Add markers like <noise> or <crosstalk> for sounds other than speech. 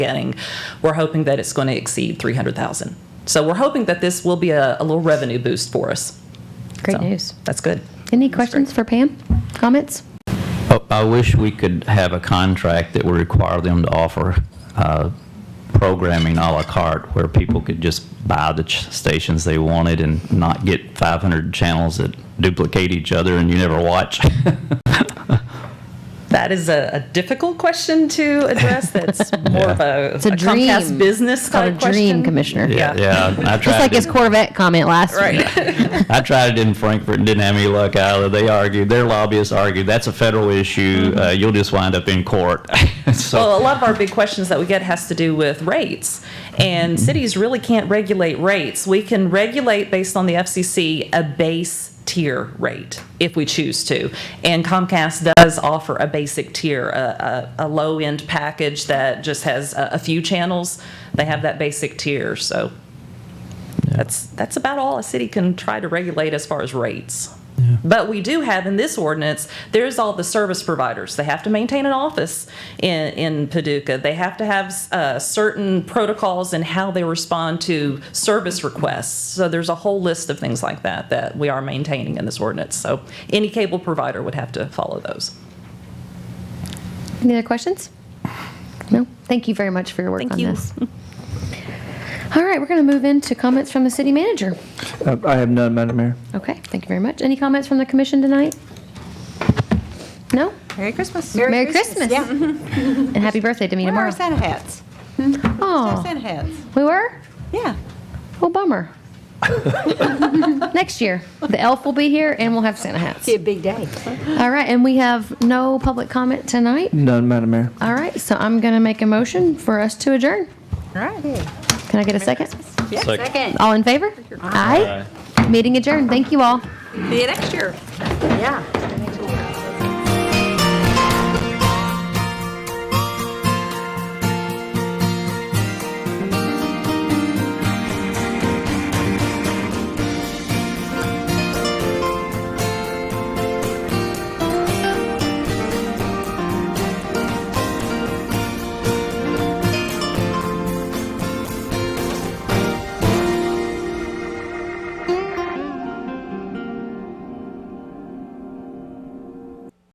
getting, we're hoping that it's going to exceed 300,000. So we're hoping that this will be a, a little revenue boost for us. Great So news. That's good. Any questions for Pam? Comments? Oh, I wish we could have a contract that would require them to offer uh, programming à la carte, where people could just buy the ch- stations they wanted and not get 500 channels that duplicate each other and you never watch. <laughs> That is a, a difficult question to address. That's more of a, a a Comcast dream. business It's called a type dream, question. Commissioner. Yeah. Yeah, Just I like tried, his it- Corvette comment last <laughs> week. Right. I tried it in Frankfurt and didn't have any luck either. They argued, their lobbyists argued, that's a federal issue, uh, you'll just wind up in court. <laughs> Well, So, a lot of our big questions that we get has to do with rates, and cities really can't regulate rates. We can regulate based on the FCC a base tier rate if we choose to, and Comcast does offer a basic tier, a, a, a low end package that just has a, a few channels. They have that basic tier, so that's that's about all a city can try to regulate as far as rates. But we do have in this ordinance, there's all the service providers. They have to maintain an office in, in Paducah. They have to have uh, certain protocols in how they respond to service requests. So there's a whole list of things like that that we are maintaining in this ordinance. So any cable provider would have to follow those. Any other questions? No? Thank you very much for your work Thank on you. this. All right, we're going to move into comments from the city manager. Uh, I have none, Madam Mayor. Okay, thank you very much. Any comments from the commission tonight? No? Merry Christmas. Merry Christmas. Yeah. And happy birthday to me Where are tomorrow. our Santa hats? Our Oh, Santa hats. we were? Yeah. <laughs> Oh, bummer. Next year, the elf will be here and we'll have Santa hats. Be a big day. All right, and we have no public comment tonight. None, Madam Mayor. All right, so I'm going to make a motion for us to adjourn. All right. Can I get a second? Second. uh, All in favor? Aye. Meeting adjourned. Thank you all. See you next year. Yeah.